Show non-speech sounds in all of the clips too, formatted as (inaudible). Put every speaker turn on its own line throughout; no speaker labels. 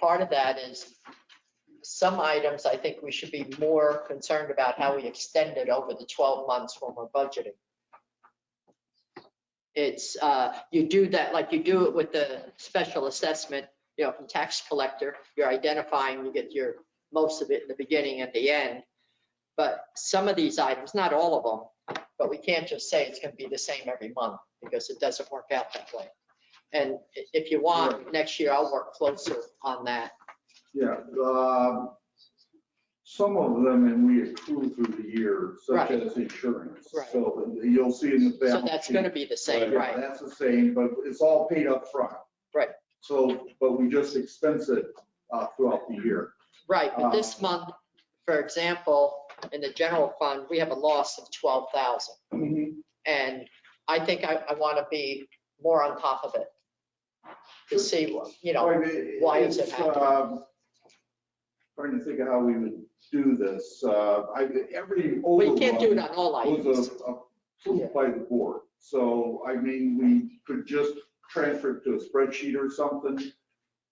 part of that is some items, I think we should be more concerned about how we extend it over the 12 months when we're budgeting. It's, uh, you do that, like you do it with the special assessment, you know, from tax collector, you're identifying, you get your, most of it in the beginning and the end. But some of these items, not all of them, but we can't just say it's going to be the same every month because it doesn't work out that way. And i- if you want, next year I'll work closer on that.
Yeah, um, some of them, and we accrue through the year, such
Right.
as insurance.
Right.
So you'll see in the
So
balance.
that's going to
sheet.
be the same,
Yeah,
right?
That's the same, but it's all paid up front.
Right.
So, but we just expense it uh, throughout the year.
Right, but this month, for example, in the general fund, we have a loss of 12,000. Mm-hmm. And I think I, I want to be more on top of it to see, what you know,
Right, it-
why is it
it's,
happening?
um, Trying to think of how we would do this. Uh, I, every.
well, you can't do it
overrun-
on all
was
items.
a- uh, approved by the board. So, I mean, we could just transfer it to a spreadsheet or something,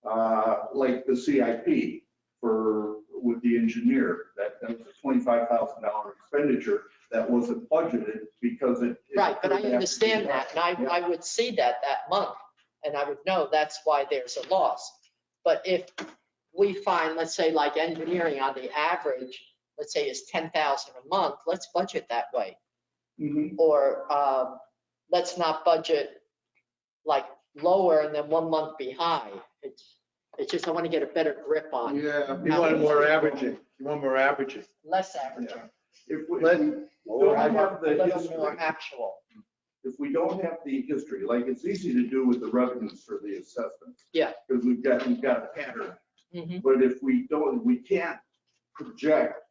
uh, like the CIP for, with the engineer. That, that was a twenty-five thousand dollar expenditure that wasn't budgeted because it. it
Right, but I
occurred after
understand
the-
that, and I, I would see that that month, and I would know that's why there's a loss. But if we find, let's say, like engineering on the average, let's say is ten thousand a month, let's budget that way.
Mhm.
Or, um, let's not budget like lower and then one month be high. It's, it's just, I want to get a better grip on,
Yeah.
You want more averaging, you want more averaging.
less average,
If we,
Let-
if we don't have the
less
history,
more actual.
if we don't have the history, like it's easy to do with the revenues for the assessments.
Yeah.
Because we've got, we've got a pattern.
Mhm.
But if we don't, we can't project,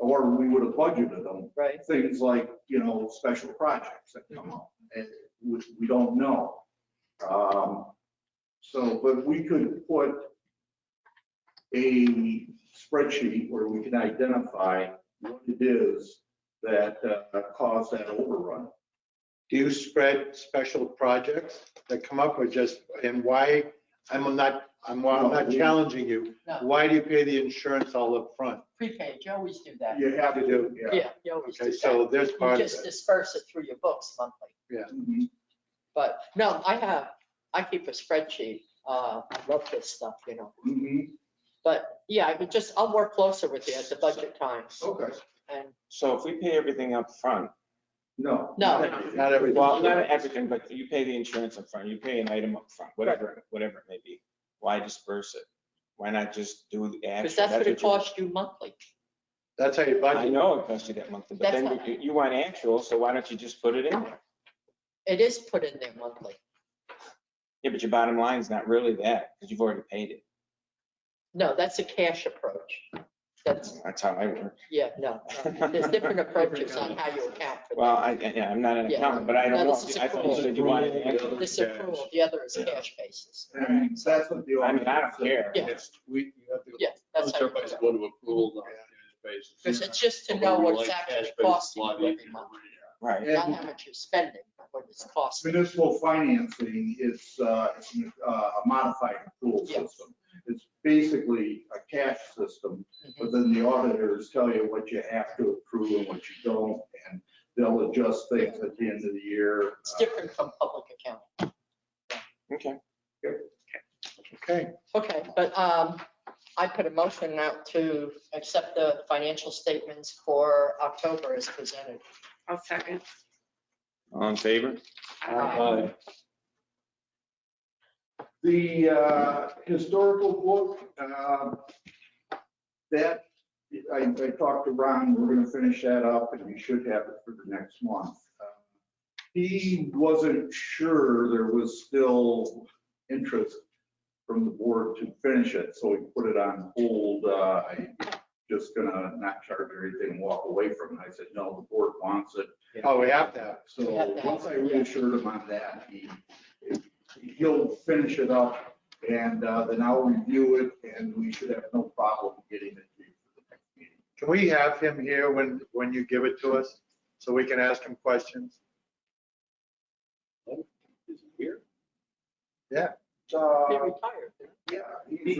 or we would have budgeted them,
Right,
things like, you know, special projects that come up, and which we don't know. Um, So, but we could put a spreadsheet where we can identify what it is that uh, caused that overrun.
Do you spread special projects that come up or just, and why, I'm not, I'm I'm not challenging you.
No.
Why do you pay the insurance all up front?
prepaid, you always do that.
You have to do, yeah.
Yeah, you always do
Okay,
that.
so there's
You
part of
just
it.
disperse it through your books monthly.
Mhm.
But no, I have, I keep a spreadsheet. Uh, I love this stuff, you know.
Mhm.
But yeah, I would just, I'll work closer with you at the budget time.
Okay,
And
So if we pay everything up front,
no.
No.
Not everything.
well, not everything, but you pay the insurance up front, you pay an item up front, whatever, whatever it may be. Why disperse it? Why not just do the actual?
because that's what it
you-
costs you monthly.
That's how you
I
budget.
know it costs you that monthly, but
That's
then
not-
you, you want actual, so why don't you just put it in there?
It is put in there monthly.
Yeah, but your bottom line's not really that, because you've already paid it.
No, that's a cash approach. That's,
That's how I work.
yeah, no. no. There's
(laughs)
different approaches on how you account for
Well, I, yeah, I'm not an
Yeah.
accountant, but I
No,
don't know.
this is
I thought you
accrual.
said you wanted an actual.
that. This approval, the other is cash basis.
And that's what the.
I mean, I don't care.
Yeah.
Yes, we, you have to.
Yeah, that's how. you do
Everybody's
it.
going to approve on a cash
Because
basis.
it's just to
Although
know
we
what
like
it's actually
cash basis
costing
lot
you every
easier.
month,
Right.
not how much you're spending, but what it's costing.
Municipal financing is uh, uh, a modified accrual
Yeah.
system. It's basically a cash system,
Mhm.
but then the auditors tell you what you have to accrue and what you don't, and they'll adjust things at the end of the year.
It's different from public accounting.
Okay.
Okay,
Okay, but um, I put a motion out to accept the financial statements for October as presented.
I'll second.
All in favor?
Aye.
The uh, historical book, uh, that, I I talked to Ron, we're going to finish that up, and we should have it for the next month. Um, He wasn't sure there was still interest from the board to finish it, so we put it on hold. Uh, I'm just going to not charge everything and walk away from it. I said, no, the board wants it.
oh, we have that.
We
So
have that,
once I
yeah.
reassured him on that, he, he'll finish it up and uh, then I'll review it and we should have no problem getting it to you for the next meeting.
Can we have him here when, when you give it to us? So we can ask him questions?
Is it Here?
Uh,
They retired.
Yeah, he's